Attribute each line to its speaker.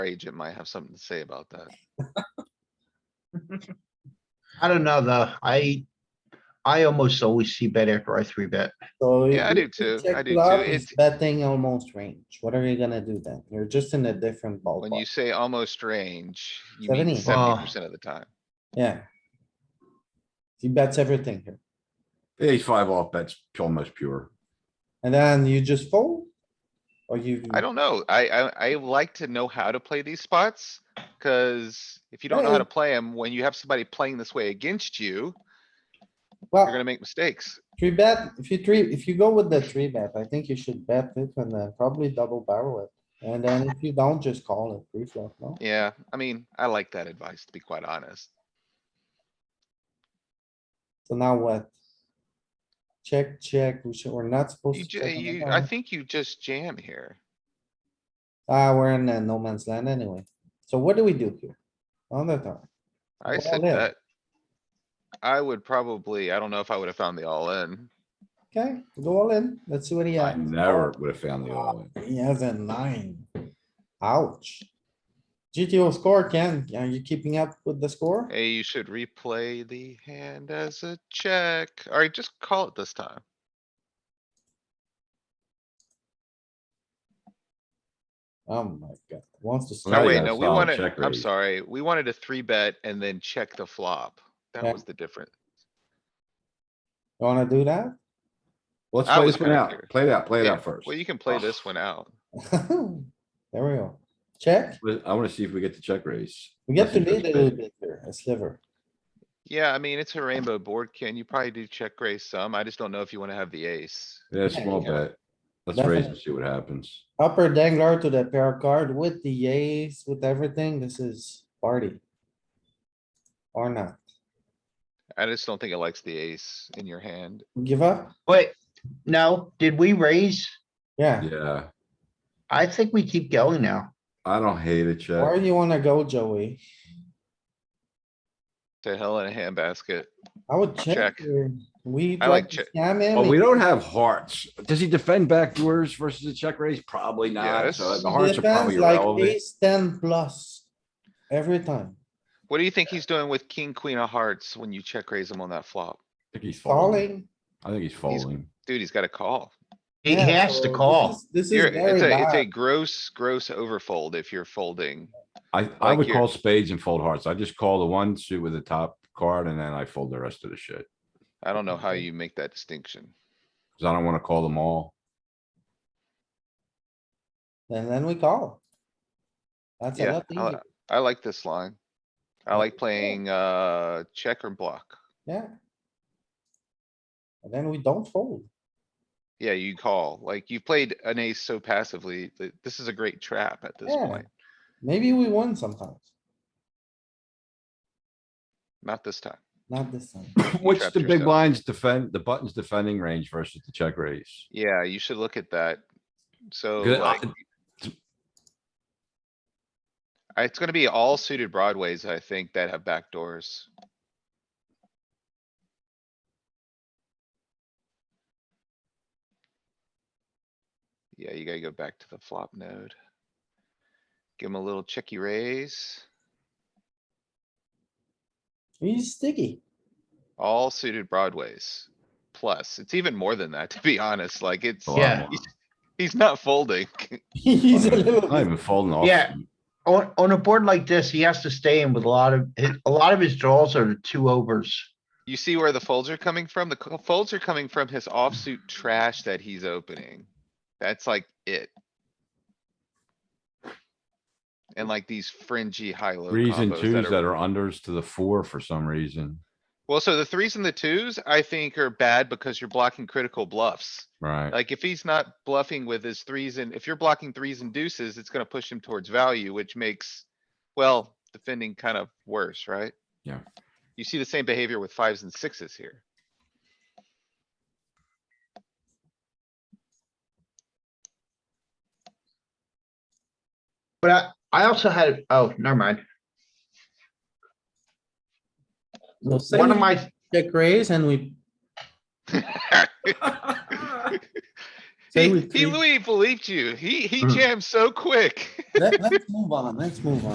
Speaker 1: agent might have something to say about that.
Speaker 2: I don't know, though. I, I almost always see bet after I three bet.
Speaker 3: So.
Speaker 1: Yeah, I
Speaker 3: if
Speaker 1: do
Speaker 3: you
Speaker 1: too.
Speaker 3: check
Speaker 1: I do
Speaker 3: flop,
Speaker 1: too.
Speaker 3: it's
Speaker 1: It-
Speaker 3: Betting almost range. What are you gonna do then? You're just in a different
Speaker 1: When you
Speaker 3: ballpark.
Speaker 1: say almost range, you mean
Speaker 3: 70.
Speaker 1: seventy Ah. percent of the time.
Speaker 3: Yeah. He bets everything here.
Speaker 4: Ace five off bets almost pure.
Speaker 3: And then you just fold? Or you?
Speaker 1: I don't know. I, I, I like to know how to play these spots. Cause if you don't know how
Speaker 3: Right.
Speaker 1: to play them, when you have somebody playing this way against you, you're
Speaker 3: Well,
Speaker 1: gonna make mistakes.
Speaker 3: three bet, if you three, if you go with the three bet, I think you should bet it and then probably double barrel it. And then if you don't, just call it three flop, no?
Speaker 1: Yeah, I mean, I like that advice, to be quite honest.
Speaker 3: So now what? Check, check. We should, we're not supposed
Speaker 1: You,
Speaker 3: to.
Speaker 1: ju-
Speaker 3: check on the
Speaker 1: you,
Speaker 3: turn.
Speaker 1: I think you just jam here.
Speaker 3: Ah, we're in uh, no man's land anyway. So what do we do here? On the turn,
Speaker 1: I
Speaker 3: All
Speaker 1: said
Speaker 3: in.
Speaker 1: that. I would probably, I don't know if I would have found the all in.
Speaker 3: okay, go all in. Let's see what he
Speaker 4: I
Speaker 3: has.
Speaker 4: never would have found the all in.
Speaker 3: He has a nine. Ouch. GTO score, Ken, are you keeping up with the score?
Speaker 1: Hey, you should replay the hand as a check. Alright, just call it this time.
Speaker 3: Oh my god, wants to.
Speaker 4: Oh,
Speaker 1: No,
Speaker 3: slide.
Speaker 1: wait,
Speaker 4: yeah,
Speaker 1: no, we
Speaker 4: solid
Speaker 1: wanted,
Speaker 4: check
Speaker 1: I'm
Speaker 4: raise.
Speaker 1: sorry, we wanted a three bet and then check the flop.
Speaker 3: Yeah.
Speaker 1: That was the difference.
Speaker 3: You Wanna do that?
Speaker 4: Let's
Speaker 1: I
Speaker 4: play
Speaker 1: was
Speaker 4: this one out.
Speaker 1: happier.
Speaker 4: Play it out, play it
Speaker 1: Yeah,
Speaker 4: out first.
Speaker 1: Well, you can play
Speaker 4: Ah.
Speaker 1: this one out.
Speaker 3: There we go. Check.
Speaker 4: But I wanna see if we get the check raise.
Speaker 3: We get to
Speaker 4: Nothing
Speaker 3: lead a
Speaker 4: goes
Speaker 3: little
Speaker 4: big.
Speaker 3: bit here, a sliver.
Speaker 1: Yeah, I mean, it's a rainbow board, Ken. You probably do check raise some. I just don't know if you wanna have the ace.
Speaker 4: Yeah, small
Speaker 3: yeah.
Speaker 4: bet. Let's raise and
Speaker 3: Definitely.
Speaker 4: see what happens.
Speaker 3: Upper dangler to the pair card with the ace, with everything. This is party. Or not.
Speaker 1: I just don't think it likes the ace in your hand.
Speaker 3: Give up?
Speaker 2: Wait, no, did we raise?
Speaker 3: Yeah.
Speaker 4: Yeah,
Speaker 2: I think we keep going now.
Speaker 4: I don't hate a
Speaker 3: Where
Speaker 4: check.
Speaker 3: you wanna go, Joey?
Speaker 1: To hell in a handbasket.
Speaker 3: I would check.
Speaker 1: Check.
Speaker 3: here. We.
Speaker 1: I like Oh,
Speaker 3: tried to
Speaker 1: check.
Speaker 3: Scam him.
Speaker 4: But Oh, we
Speaker 3: he-
Speaker 4: don't have hearts. Does he defend backdoors versus a check raise? Probably not.
Speaker 1: Yes.
Speaker 4: So the
Speaker 3: he
Speaker 4: hearts are
Speaker 3: defends
Speaker 4: probably
Speaker 3: like
Speaker 4: irrelevant.
Speaker 3: Ace ten plus. Every time.
Speaker 1: What do you think he's doing with king, queen of hearts when you check raise him on that flop?
Speaker 4: I think he's folding.
Speaker 3: Falling.
Speaker 4: I think he's folding.
Speaker 1: Dude, he's got a call.
Speaker 2: He
Speaker 3: Yeah,
Speaker 2: has
Speaker 3: so
Speaker 2: to
Speaker 3: this
Speaker 2: call.
Speaker 3: is- This
Speaker 1: You're,
Speaker 3: is
Speaker 1: it's
Speaker 3: very
Speaker 1: a, it's a
Speaker 3: bad.
Speaker 1: gross, gross overfold if you're folding.
Speaker 4: I, I
Speaker 1: Like
Speaker 4: would
Speaker 1: here.
Speaker 4: call spades and fold hearts. I just call the one suit with the top card and then I fold the rest of the shit.
Speaker 1: I don't know how you make that distinction.
Speaker 4: Cause I don't wanna call them all.
Speaker 3: And then we call. That's a
Speaker 1: Yeah,
Speaker 3: lot
Speaker 1: I, li-
Speaker 3: easier.
Speaker 1: I like this line. I
Speaker 3: Yeah.
Speaker 1: like playing, uh, check or block.
Speaker 3: Yeah. And then we don't fold.
Speaker 1: Yeah, you call, like you played an ace so passively, th- this is a great trap at this
Speaker 3: Yeah.
Speaker 1: point,
Speaker 3: Maybe we win sometimes.
Speaker 1: not this time.
Speaker 3: Not this time.
Speaker 4: What's
Speaker 1: trapped
Speaker 4: the big
Speaker 1: yourself.
Speaker 4: blinds defend, the buttons defending range versus the check raise?
Speaker 1: Yeah, you should look at that. So
Speaker 4: Good, I-
Speaker 1: Oh, like. I- It's gonna be all suited broadways, I think, that have back doors. Yeah, you gotta go back to the flop node. Give him a little checky raise,
Speaker 3: He's sticky.
Speaker 1: all suited broadways. Plus, it's even more than that, to be honest, like it's,
Speaker 4: A lot
Speaker 2: Yeah.
Speaker 4: more.
Speaker 1: he's not folding.
Speaker 3: He's a little.
Speaker 4: Not even folding off.
Speaker 2: Yeah. On, on a board like this, he has to stay in with a lot of, his- a lot of his draws are the two overs.
Speaker 1: You see where the folds are coming from? The co- folds are coming from his offsuit trash that he's opening. That's like it. And like these fringy high-low
Speaker 4: Reason
Speaker 1: combos
Speaker 4: twos
Speaker 1: that
Speaker 4: that
Speaker 1: are.
Speaker 4: are unders to the four for some reason,
Speaker 1: Well, so the threes and the twos, I think are bad because you're blocking critical bluffs.
Speaker 4: right?
Speaker 1: Like if he's not bluffing with his threes and if you're blocking threes and deuces, it's gonna push him towards value, which makes, well, defending kind of worse, right?
Speaker 4: Yeah.
Speaker 1: You see the same behavior with fives and sixes here.
Speaker 2: But I, I also had, oh, never mind.
Speaker 3: So say
Speaker 2: One of
Speaker 3: we
Speaker 2: my,
Speaker 3: Check raise and we,
Speaker 1: He,
Speaker 3: Two with
Speaker 1: he
Speaker 3: three.
Speaker 1: Louis Philippe you. He, he
Speaker 4: Mm.
Speaker 1: jammed so quick.
Speaker 3: Let, let's move on, let's move on.